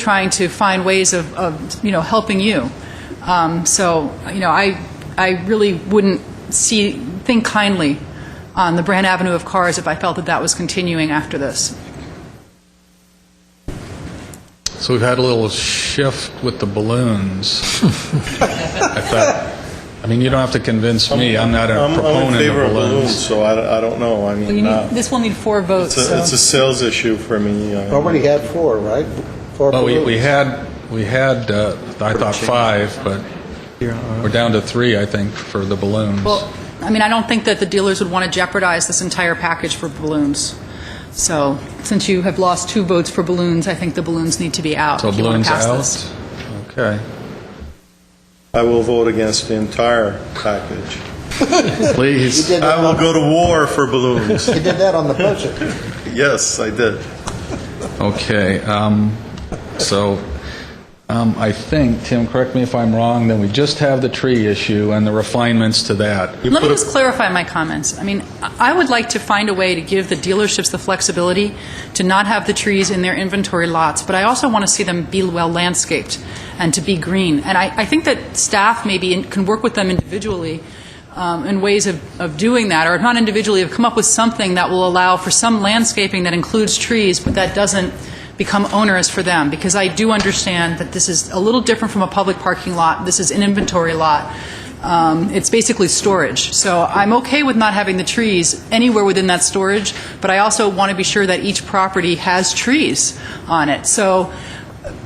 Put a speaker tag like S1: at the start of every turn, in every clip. S1: trying to find ways of, of you know, helping you. Um, so, you know, I, I really wouldn't see, think kindly on the Brand Avenue of cars if I felt that that was continuing after this.
S2: So we've had a little shift with the balloons. I thought, I mean, you don't have to convince me, I'm not a
S3: I'm in
S2: proponent of
S3: favor of balloons,
S2: balloons.
S3: so I don't- I don't know, I
S1: Well, you
S3: mean, uh,
S1: need, this will need four votes,
S3: it's a it's
S1: so.
S3: a sales issue for me. uh, I-
S4: Already had four, right? Four
S2: Well, we we
S4: balloons.
S2: had, we had, uh, I thought five, but we're down to three, I think, for the balloons.
S1: Well, I mean, I don't think that the dealers would want to jeopardize this entire package for balloons. So, since you have lost two votes for balloons, I think the balloons need to be out.
S2: So
S1: if you wanna
S2: balloons
S1: pass this.
S2: out? Okay.
S3: I will vote against the entire package.
S4: You
S2: Please.
S4: did
S3: I
S4: that
S3: will
S4: on-
S3: go to war for balloons.
S4: you did that on the budget.
S3: Yes, I did.
S2: Okay, um, so, um, I think, Tim, correct me if I'm wrong, then we just have the tree issue and the refinements to that.
S1: Let me just clarify my comments. I mean, I I would like to find a way to give the dealerships the flexibility to not have the trees in their inventory lots, but I also want to see them be well landscaped and to be green. And I, I think that staff maybe in- can work with them individually um, in ways of, of doing that, or if not individually, have come up with something that will allow for some landscaping that includes trees, but that doesn't become onerous for them, because I do understand that this is a little different from a public parking lot. This is an inventory lot. Um, It's basically storage. So I'm okay with not having the trees anywhere within that storage, but I also want to be sure that each property has trees on it. So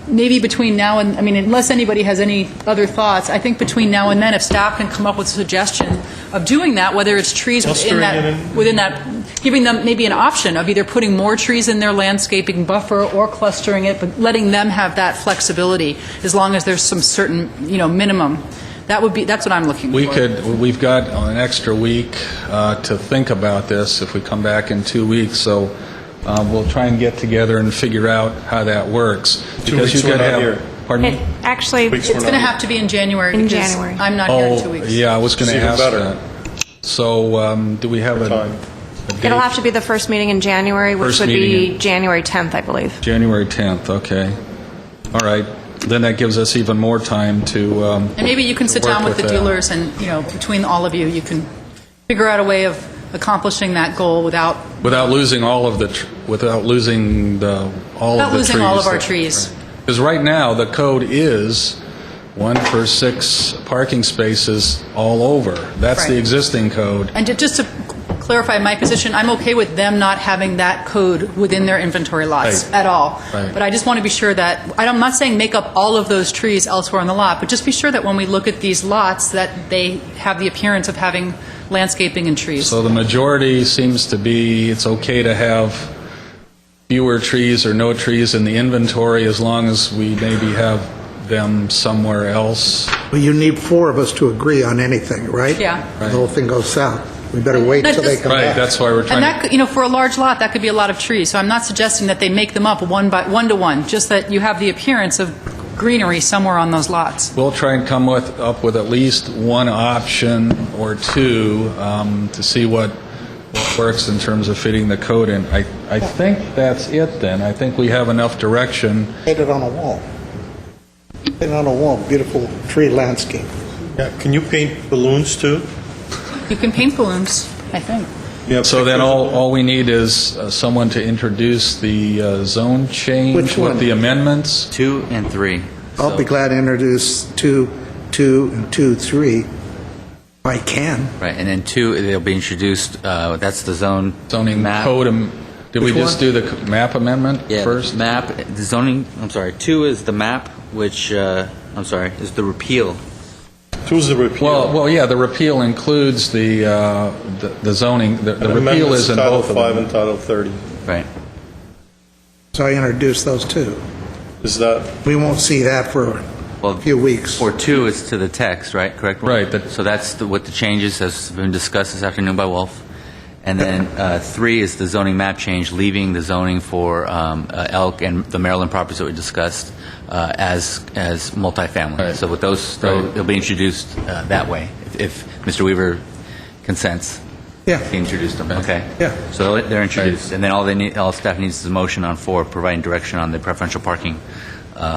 S1: maybe between now and, I mean, unless anybody has any other thoughts, I think between now and then, if staff can come up with a suggestion of doing that, whether it's trees within
S3: Clustering it
S1: that,
S3: in.
S1: within that, giving them maybe an option of either putting more trees in their landscaping buffer or clustering it, but letting them have that flexibility, as long as there's some certain, you know, minimum. That would be, that's what I'm looking for.
S2: We could, we've got an extra week uh, to think about this if we come back in two weeks, so uh, we'll try and get together and figure out how that works. Because you
S3: weeks we're
S2: could
S3: not
S2: have-
S3: here.
S2: Pardon
S5: It
S2: me?
S5: actually,
S3: Weeks
S1: It's
S3: were
S1: going to
S3: not-
S1: have to be in January.
S5: In
S1: because
S5: January.
S1: I'm not here in two
S2: Oh,
S1: weeks.
S2: yeah, I was going
S3: It's
S2: to
S3: even
S2: ask
S3: better.
S2: that. So um, do we have a
S3: Time.
S2: a date?
S5: it'll have to be the first meeting in January, which
S2: First
S5: would
S2: meeting
S5: be
S2: in-
S5: January 10th, I believe.
S2: January 10th, okay. All right, then that gives us even more time to um,
S1: And maybe you can sit
S2: to work
S1: down with the
S2: that.
S1: dealers and, you know, between all of you, you can figure out a way of accomplishing that goal without,
S2: Without losing all of the, tr- without losing the, all of
S1: Without
S2: the trees.
S1: losing all of our trees.
S2: Because right now, the code is one for six parking spaces all over. That's the
S1: Right.
S2: existing code.
S1: and ju- just to clarify my position, I'm okay with them not having that code within their inventory lots
S2: Right.
S1: at all.
S2: Right.
S1: But I just want to be sure that, I don't- I'm not saying make up all of those trees elsewhere on the lot, but just be sure that when we look at these lots, that they have the appearance of having landscaping and trees.
S2: So the majority seems to be, it's okay to have fewer trees or no trees in the inventory as long as we maybe have them somewhere else.
S4: But you need four of us to agree on anything, right?
S1: Yeah.
S4: The whole thing goes south. We better wait
S1: That
S4: till they
S1: just-
S4: come
S2: Right,
S4: back.
S2: that's why we're
S1: And
S2: trying to...
S1: that, could- you know, for a large lot, that could be a lot of trees. So I'm not suggesting that they make them up one by, one to one, just that you have the appearance of greenery somewhere on those lots.
S2: We'll try and come with, up with at least one option or two um, to see what what works in terms of fitting the code in. I, I think that's it then. I think we have enough direction.
S4: Paint it on a wall. Paint it on a wall, beautiful tree landscape.
S3: Yeah, Can you paint balloons, too?
S1: You can paint balloons, I think.
S3: You have
S2: So then
S3: pictures
S2: all,
S3: of
S2: all we need is uh, someone to introduce the uh, zone change
S4: Which
S2: with
S4: one?
S2: the amendments.
S6: Two and three.
S4: I'll be
S6: So-
S4: glad to introduce two, two, and two, three, if I can.
S6: Right, and then two, they'll be introduced, uh, that's the zone.
S2: Zoning
S6: map.
S2: code, am- did we
S4: Which
S2: just
S4: one?
S2: do the c- map amendment
S6: Yeah,
S2: first?
S6: Map, the zoning, I'm sorry, two is the map, which, uh, I'm sorry, is the repeal.
S3: Choose the
S2: Well,
S3: repeal.
S2: well, yeah, the repeal includes the, uh, the the zoning, the the repeal
S3: Amendments
S2: is
S3: to
S2: in
S3: Title
S2: both of them.
S3: Five and Title 30.
S6: Right.
S4: So I introduce those two.
S3: Is that,
S4: We won't see that for
S6: Well,
S4: a few weeks.
S6: Or two is to the text, right? Correct? Wolf?
S2: Right, that-
S6: So that's the- what the changes has been discussed this afternoon by Wolf. And then uh, three is the zoning map change, leaving the zoning for um, uh, Elk and the Maryland properties that we discussed uh, as, as multifamily.
S2: Right.
S6: So with those, they'll
S2: Right.
S6: they'll be introduced uh, that way, if- if Mr. Weaver consents.
S4: Yeah.
S6: He introduced them, okay?
S4: Yeah.
S6: So they're introduced, and then all they need, all staff needs is a motion on four, providing direction on the preferential parking uh,